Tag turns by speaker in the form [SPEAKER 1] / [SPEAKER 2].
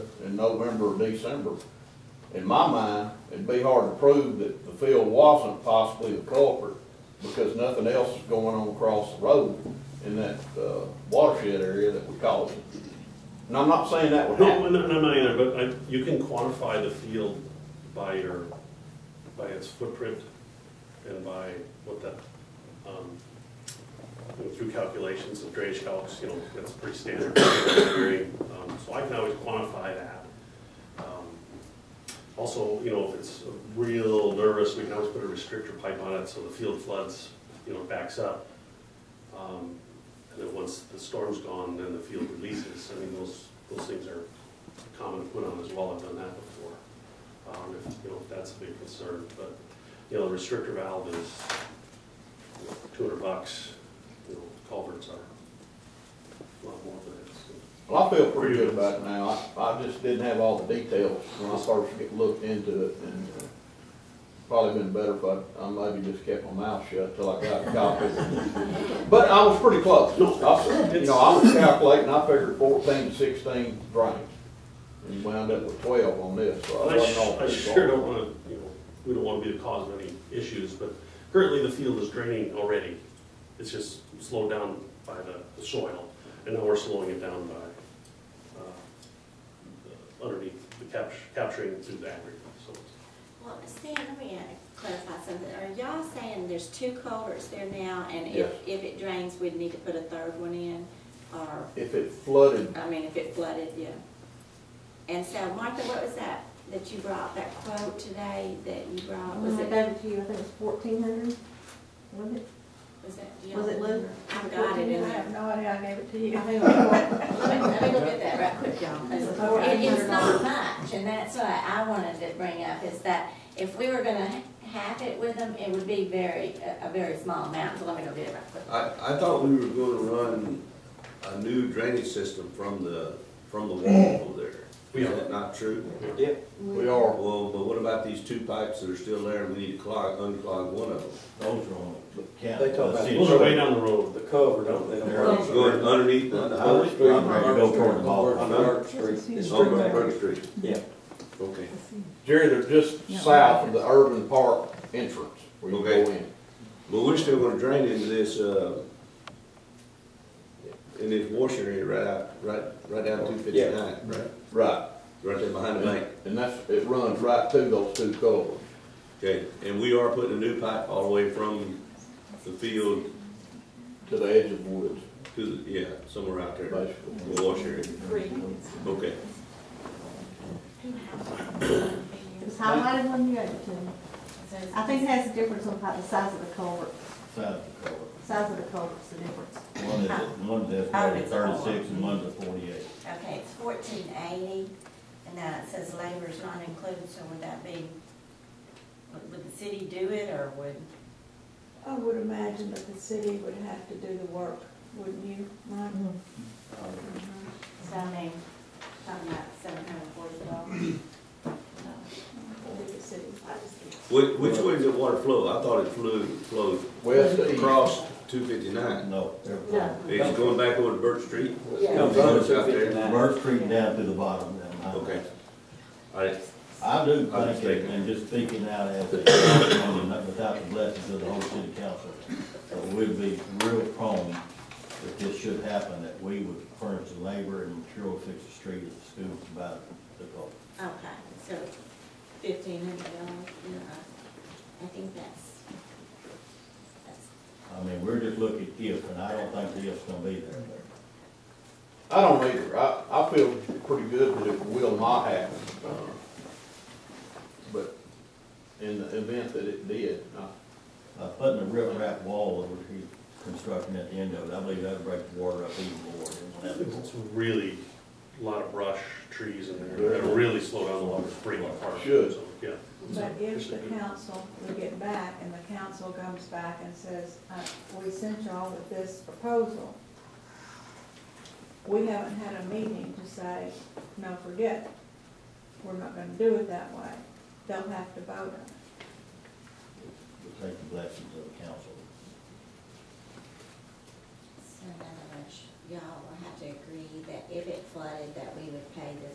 [SPEAKER 1] in November or December. In my mind, it'd be hard to prove that the field wasn't possibly the culprit because nothing else is going on across the road in that, uh, watershed area that we call it. And I'm not saying that would
[SPEAKER 2] No,
[SPEAKER 1] happen.
[SPEAKER 2] no, no, not either, but I, you can quantify the field by your, by its footprint and by what that, um, you know, through calculations of drainage calcs, you know, that's pretty standard engineering, um, so I can always quantify that. Um, Also, you know, if it's real nervous, we can always put a restrictor pipe on it, so the field floods, you know, backs up. Um, And then once the storm's gone, then the field releases. I mean, those, those things are common to put on as well. I've done that before. Um, if, you know, if that's a big concern, but, you know, the restrictor valve is two hundred bucks. You know, culverts are a lot more than that. so.
[SPEAKER 1] Well, I feel pretty good about it now. I, I just didn't have all the details when I first get looked into it and uh, probably been better if I, I maybe just kept my mouth shut till I got a copy. But I was pretty close.
[SPEAKER 2] No,
[SPEAKER 1] I- You know, I was calculating, I figured fourteen to sixteen drains and wound up with twelve on this, so I
[SPEAKER 2] And I
[SPEAKER 1] wasn't
[SPEAKER 2] sh-
[SPEAKER 1] all
[SPEAKER 2] I
[SPEAKER 1] too
[SPEAKER 2] sure
[SPEAKER 1] far.
[SPEAKER 2] don't wanna, you know, we don't wanna be the cause of any issues, but currently the field is draining already. It's just slowed down by the- the soil, and now we're slowing it down by, uh, underneath, the cap- capturing through the aggregate, so.
[SPEAKER 3] Well, Stan, let me uh, clarify something. Are y'all saying there's two culverts there now, and if,
[SPEAKER 1] Yes.
[SPEAKER 3] if it drains, we'd need to put a third one in? Or,
[SPEAKER 1] If it flooded,
[SPEAKER 3] I mean, if it flooded, yeah. And so, Martha, what was that, that you brought, that quote today that you brought? Was
[SPEAKER 4] When I
[SPEAKER 3] it,
[SPEAKER 4] gave it to you, I think it was fourteen hundred, wasn't it?
[SPEAKER 3] was that? do y'all
[SPEAKER 4] Was it Lou?
[SPEAKER 3] remember? I've got it in
[SPEAKER 4] I
[SPEAKER 3] there.
[SPEAKER 4] have no idea, I gave it to you.
[SPEAKER 3] I think it was- Let me, let me look at that right quick, y'all.
[SPEAKER 4] It's
[SPEAKER 3] It- It's not
[SPEAKER 4] $4,800.
[SPEAKER 3] much, and that's what I wanted to bring up, is that if we were gonna ha- have it with them, it would be very, a a very small amount, so let me go get it right quick.
[SPEAKER 5] I, I thought we were gonna run a new drainage system from the, from the wall over there.
[SPEAKER 2] We
[SPEAKER 5] Is
[SPEAKER 2] are.
[SPEAKER 5] that not true?
[SPEAKER 1] we
[SPEAKER 6] Mm-hmm.
[SPEAKER 1] are,
[SPEAKER 5] Well, but what about these two pipes that are still there and we need to clog, unclog one of them?
[SPEAKER 7] Those are on the county.
[SPEAKER 6] They talk about-
[SPEAKER 7] city.
[SPEAKER 2] Those are way down the road.
[SPEAKER 6] The cover, don't they?
[SPEAKER 7] They're-
[SPEAKER 5] Going underneath the
[SPEAKER 6] Howard
[SPEAKER 5] highway?
[SPEAKER 6] Street,
[SPEAKER 7] I'm ready to go toward the mall.
[SPEAKER 6] On Howard Street.
[SPEAKER 4] It's
[SPEAKER 5] Over on Burke Street,
[SPEAKER 6] Yeah.
[SPEAKER 5] okay.
[SPEAKER 1] Jerry, they're just south of the urban park entrance where you go
[SPEAKER 5] Okay.
[SPEAKER 1] in.
[SPEAKER 5] But we're still gonna drain into this, uh, in this washer area right out, right, right down two fifty-nine, right?
[SPEAKER 1] Right.
[SPEAKER 5] Right there behind the bank.
[SPEAKER 1] And that's, it runs right through those two culverts.
[SPEAKER 5] Okay, and we are putting a new pipe all the way from the field
[SPEAKER 1] to the edge of the woods,
[SPEAKER 5] to the, yeah, somewhere out there.
[SPEAKER 1] basically.
[SPEAKER 5] The wash area, okay.
[SPEAKER 4] It was highlighted when you gave it to me. I think it has a difference on how the size of the culvert,
[SPEAKER 7] Side of the cover.
[SPEAKER 4] size of the culvert's the difference.
[SPEAKER 7] One is, one is thirty-six and one's at forty-eight.
[SPEAKER 3] Okay, it's fourteen eighty, and now it says labor's not included, so would that be, would- would the city do it, or would?
[SPEAKER 8] I would imagine that the city would have to do the work, wouldn't you, Mike?
[SPEAKER 3] Mm-hmm. So I mean, talking about seven hundred and forty dollars.
[SPEAKER 8] Do the city.
[SPEAKER 5] Which, which way does the water flow? I thought it flew, flowed
[SPEAKER 1] West to east.
[SPEAKER 5] across two fifty-nine.
[SPEAKER 7] No, they're
[SPEAKER 5] It's going back over to Birch Street?
[SPEAKER 6] Comes on two fifty-nine.
[SPEAKER 7] Bird Creek down to the bottom down. high.
[SPEAKER 5] Okay. All right,
[SPEAKER 7] I do
[SPEAKER 5] I'm
[SPEAKER 7] think, it-
[SPEAKER 5] mistaken.
[SPEAKER 7] and just speaking out as a, councilman, not without the blessings of the whole city council, that we'd be real prone, if this should happen, that we would furnish the labor and material to fix the street if the school provided the culvert.
[SPEAKER 3] Okay, so fifteen hundred dollars, you know, I- I think that's, that's
[SPEAKER 7] I mean, we're just looking if, and I don't think the if's gonna be there, but.
[SPEAKER 1] I don't either, I, I feel pretty good that it will not happen. uh, But in the event that it did, I-
[SPEAKER 7] By Uh, putting a riprap wall over here, constructing at the end of it, I believe that'd break the water up even more. It won't have-
[SPEAKER 2] It's really a lot of brush, trees in there, it'll really slow down the water, spring apart.
[SPEAKER 1] Should.
[SPEAKER 2] So, Yeah.
[SPEAKER 8] But if the council, we get back and the council comes back and says, uh, we sent y'all with this proposal. We haven't had a meeting to say, no, forget, it. we're not gonna do it that way. They'll have to vote on it.
[SPEAKER 7] It'll Take the blessings of the council.
[SPEAKER 3] So in other words, y'all will have to agree that if it flooded, that we would pay this